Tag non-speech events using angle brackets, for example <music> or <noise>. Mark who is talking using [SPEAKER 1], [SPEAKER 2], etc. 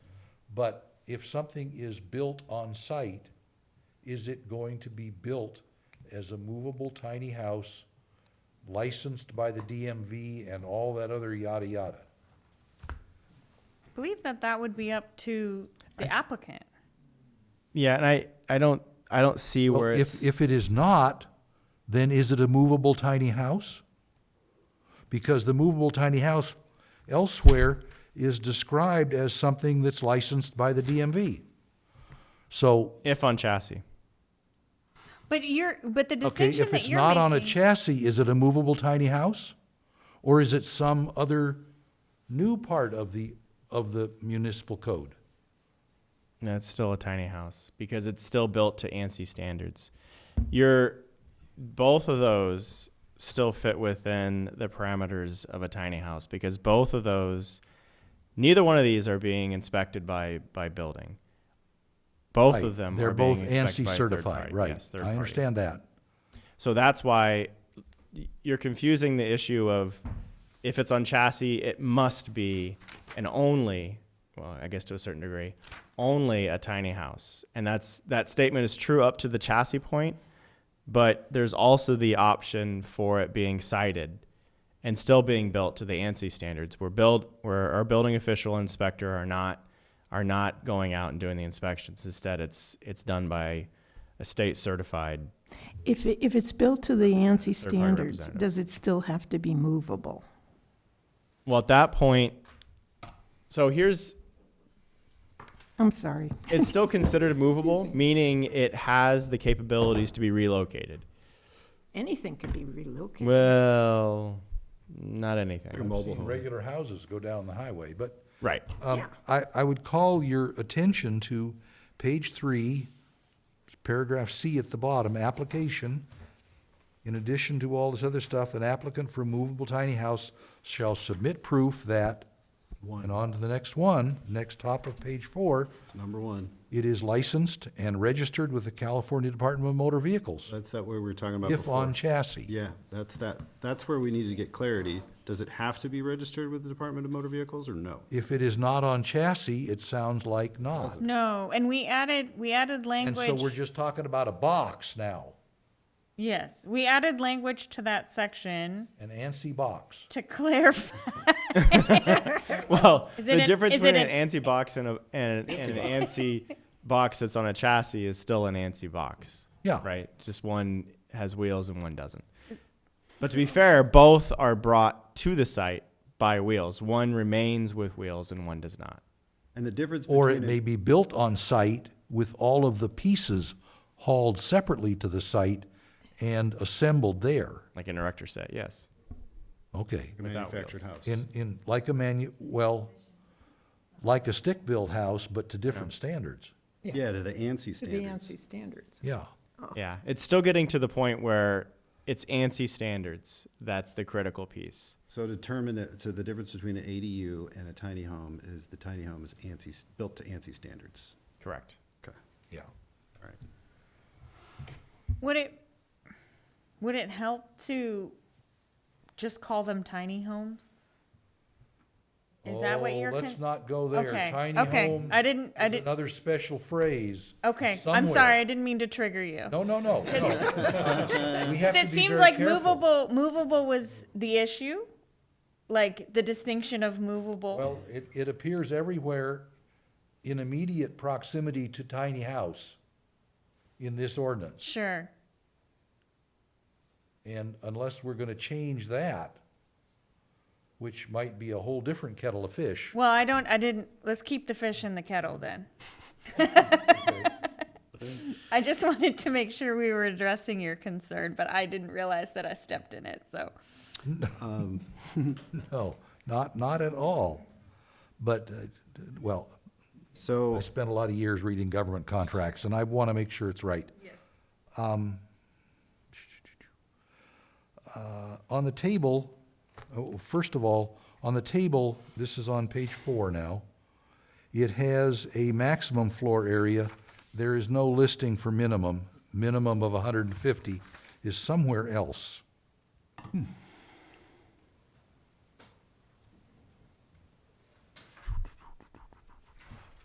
[SPEAKER 1] But if something is built on site, is it going to be built as a movable tiny house licensed by the DMV and all that other yada yada?
[SPEAKER 2] Believe that that would be up to the applicant.
[SPEAKER 3] Yeah, and I, I don't I don't see
[SPEAKER 1] Well,
[SPEAKER 3] where
[SPEAKER 1] If,
[SPEAKER 3] it's
[SPEAKER 1] if it is not, then is it a movable tiny house? Because the movable tiny house elsewhere is described as something that's licensed by the DMV. So,
[SPEAKER 3] if on chassis.
[SPEAKER 2] But you're, but the
[SPEAKER 1] okay,
[SPEAKER 2] distinction
[SPEAKER 1] if
[SPEAKER 2] that
[SPEAKER 1] it's
[SPEAKER 2] you're
[SPEAKER 1] not on a
[SPEAKER 2] making-
[SPEAKER 1] chassis, is it a movable tiny house? Or is it some other new part of the, of the municipal code?
[SPEAKER 3] No, it's still a tiny house because it's still built to ANSI standards. You're both of those still fit within the parameters of a tiny house because both of those neither one of these are being inspected by by building. Both
[SPEAKER 1] Right,
[SPEAKER 3] of them
[SPEAKER 1] They're
[SPEAKER 3] are
[SPEAKER 1] both
[SPEAKER 3] being
[SPEAKER 1] ANSI
[SPEAKER 3] inspected by a third
[SPEAKER 1] certified,
[SPEAKER 3] party.
[SPEAKER 1] right?
[SPEAKER 3] Yes, third
[SPEAKER 1] I
[SPEAKER 3] party.
[SPEAKER 1] understand that.
[SPEAKER 3] So that's why y- you're confusing the issue of if it's on chassis, it must be and only, well, I guess to a certain degree, only a tiny house. And that's that statement is true up to the chassis point, but there's also the option for it being cited and still being built to the ANSI standards. Where build where our building official inspector are not are not going out and doing the inspections. Instead, it's it's done by a state certified
[SPEAKER 4] If, it- if it's built to the
[SPEAKER 3] Third
[SPEAKER 4] ANSI
[SPEAKER 3] party
[SPEAKER 4] standards,
[SPEAKER 3] representative.
[SPEAKER 4] does it still have to be movable?
[SPEAKER 3] Well, at that point, so here's
[SPEAKER 4] I'm sorry.
[SPEAKER 3] it's still considered movable, meaning it has the capabilities to be relocated.
[SPEAKER 4] Anything can be relocated.
[SPEAKER 3] Well, not anything.
[SPEAKER 1] I've seen regular houses go down the highway, but.
[SPEAKER 3] Right.
[SPEAKER 1] Um,
[SPEAKER 4] Yeah.
[SPEAKER 1] I, I would call your attention to page three, paragraph C at the bottom, application. In addition to all this other stuff, an applicant for movable tiny house shall submit proof that, and on to the next one, next top of page four,
[SPEAKER 5] It's number one.
[SPEAKER 1] it is licensed and registered with the California Department of Motor Vehicles,
[SPEAKER 5] That's that way we were talking about
[SPEAKER 1] if on
[SPEAKER 5] before.
[SPEAKER 1] chassis.
[SPEAKER 5] Yeah, that's that, that's where we need to get clarity. Does it have to be registered with the Department of Motor Vehicles or no?
[SPEAKER 1] If it is not on chassis, it sounds like not.
[SPEAKER 2] No, and we added, we added
[SPEAKER 1] And so we're
[SPEAKER 2] language,
[SPEAKER 1] just talking about a box now,
[SPEAKER 2] yes, we added language to that section
[SPEAKER 1] an ANSI box.
[SPEAKER 2] to <laughs> clarify.
[SPEAKER 3] Well,
[SPEAKER 2] Is it
[SPEAKER 3] the
[SPEAKER 2] an-
[SPEAKER 3] difference
[SPEAKER 2] is it
[SPEAKER 3] between an,
[SPEAKER 2] an-
[SPEAKER 3] ANSI box and, a, and, and an ANSI box that's on a chassis is still an ANSI box.
[SPEAKER 1] Yeah.
[SPEAKER 3] Right? Just one has wheels and one doesn't. But to be fair, both are brought to the site by wheels. One remains with wheels and one does not.
[SPEAKER 5] And the difference
[SPEAKER 1] Or it may
[SPEAKER 5] between,
[SPEAKER 1] be built on site with all of the pieces hauled separately to the site and assembled there.
[SPEAKER 3] Like an erector set, yes.
[SPEAKER 1] Okay.
[SPEAKER 5] a manufactured house.
[SPEAKER 1] In, in, like a manu, well, like a stick-built house, but to different standards.
[SPEAKER 5] Yeah, to the ANSI
[SPEAKER 4] To the
[SPEAKER 5] standards.
[SPEAKER 4] ANSI standards.
[SPEAKER 1] Yeah.
[SPEAKER 3] Yeah, it's still getting to the point where it's ANSI standards. That's the critical piece.
[SPEAKER 5] So determine, it- so the difference between an ADU and a tiny home is the tiny home is ANSI, s- built to ANSI standards.
[SPEAKER 3] Correct.
[SPEAKER 5] Okay,
[SPEAKER 1] Yeah.
[SPEAKER 5] all right.
[SPEAKER 2] Would it, would it help to just call them tiny homes? Is that what
[SPEAKER 1] Oh,
[SPEAKER 2] you're?
[SPEAKER 1] Let's
[SPEAKER 2] con-
[SPEAKER 1] not go there.
[SPEAKER 2] Okay,
[SPEAKER 1] Tiny
[SPEAKER 2] okay.
[SPEAKER 1] homes
[SPEAKER 2] I didn't- I
[SPEAKER 1] is
[SPEAKER 2] didn't-
[SPEAKER 1] Another special phrase.
[SPEAKER 2] Okay, I'm
[SPEAKER 1] somewhere.
[SPEAKER 2] sorry, I didn't mean to trigger you.
[SPEAKER 1] No, no,
[SPEAKER 2] <laughs>
[SPEAKER 1] no, no. We have to
[SPEAKER 2] It
[SPEAKER 1] be
[SPEAKER 2] seemed
[SPEAKER 1] very
[SPEAKER 2] like
[SPEAKER 1] careful.
[SPEAKER 2] movable, movable was the issue, like the distinction of movable.
[SPEAKER 1] Well, it, it appears everywhere in immediate proximity to tiny house in this ordinance.
[SPEAKER 2] Sure.
[SPEAKER 1] And unless we're gonna change that, which might be a whole different kettle of fish. <laughs>
[SPEAKER 2] Well, I don't, I didn't, let's keep the fish in the kettle then. I just wanted to make sure we were addressing your concern, but I didn't realize that I stepped in it, so.
[SPEAKER 1] No, not, not at all. But, uh, well,
[SPEAKER 5] So.
[SPEAKER 1] I spent a lot of years reading government contracts, and I wanna make sure it's right. Yes. Um. Uh, on the table, oh, first of all, on the table, this is on page four now. It has a maximum floor area. There is no listing for minimum. Minimum of hundred and fifty is somewhere else.